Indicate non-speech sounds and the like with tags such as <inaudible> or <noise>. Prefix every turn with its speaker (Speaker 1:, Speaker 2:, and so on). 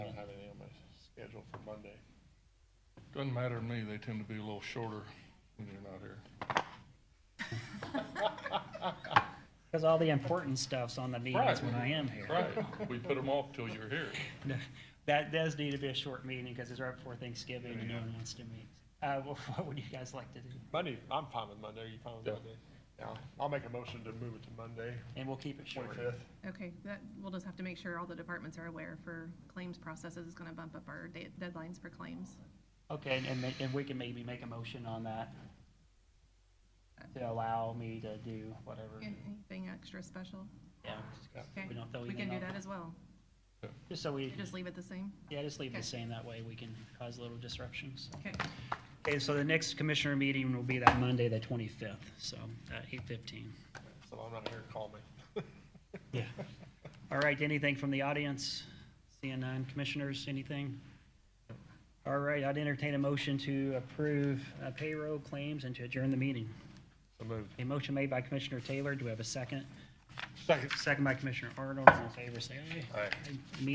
Speaker 1: schedule for Monday. Doesn't matter to me, they tend to be a little shorter when you're not here.
Speaker 2: Because all the important stuff's on the meetings when I am here.
Speaker 1: Right, we put them off till you're here.
Speaker 2: No, <laughs> That does need to be a short meeting because it's right before Thanksgiving and no one wants to meet. Uh, <laughs> wha- what would you guys like to do?
Speaker 3: Monday, I'm fine with Monday. Are you fine with
Speaker 1: Yeah.
Speaker 3: Monday? Yeah, I'll make a motion to move it to Monday,
Speaker 2: And we'll keep it short.
Speaker 3: twenty-fifth.
Speaker 4: Okay, that, we'll just have to make sure all the departments are aware for claims processes. It's gonna bump up our da- deadlines for claims.
Speaker 2: Okay, and- and, ma- and we can maybe make a motion on that to allow me to do whatever.
Speaker 4: An- Anything extra special?
Speaker 2: Yeah,
Speaker 4: Okay,
Speaker 2: we don't throw
Speaker 4: we can
Speaker 2: anything
Speaker 4: do
Speaker 2: out.
Speaker 4: that as well.
Speaker 2: just so we,
Speaker 4: Just leave it the same?
Speaker 2: yeah, just leave it the
Speaker 4: Okay.
Speaker 2: same. That way we can cause little disruptions.
Speaker 4: Okay,
Speaker 2: Okay, so the next commissioner meeting will be that Monday, the twenty-fifth, so at eight fifteen.
Speaker 3: So if I'm not here, call me.
Speaker 2: Yeah. All right, anything from the audience? Seeing none, commissioners, anything? All right, I'd entertain a motion to approve uh, payroll claims and to adjourn the meeting.
Speaker 3: So moved.
Speaker 2: A motion made by Commissioner Taylor, do we have a second?
Speaker 3: <laughs> Second.
Speaker 2: Second by Commissioner Arnold, all in favor, say aye.
Speaker 3: Aye.
Speaker 2: Meeting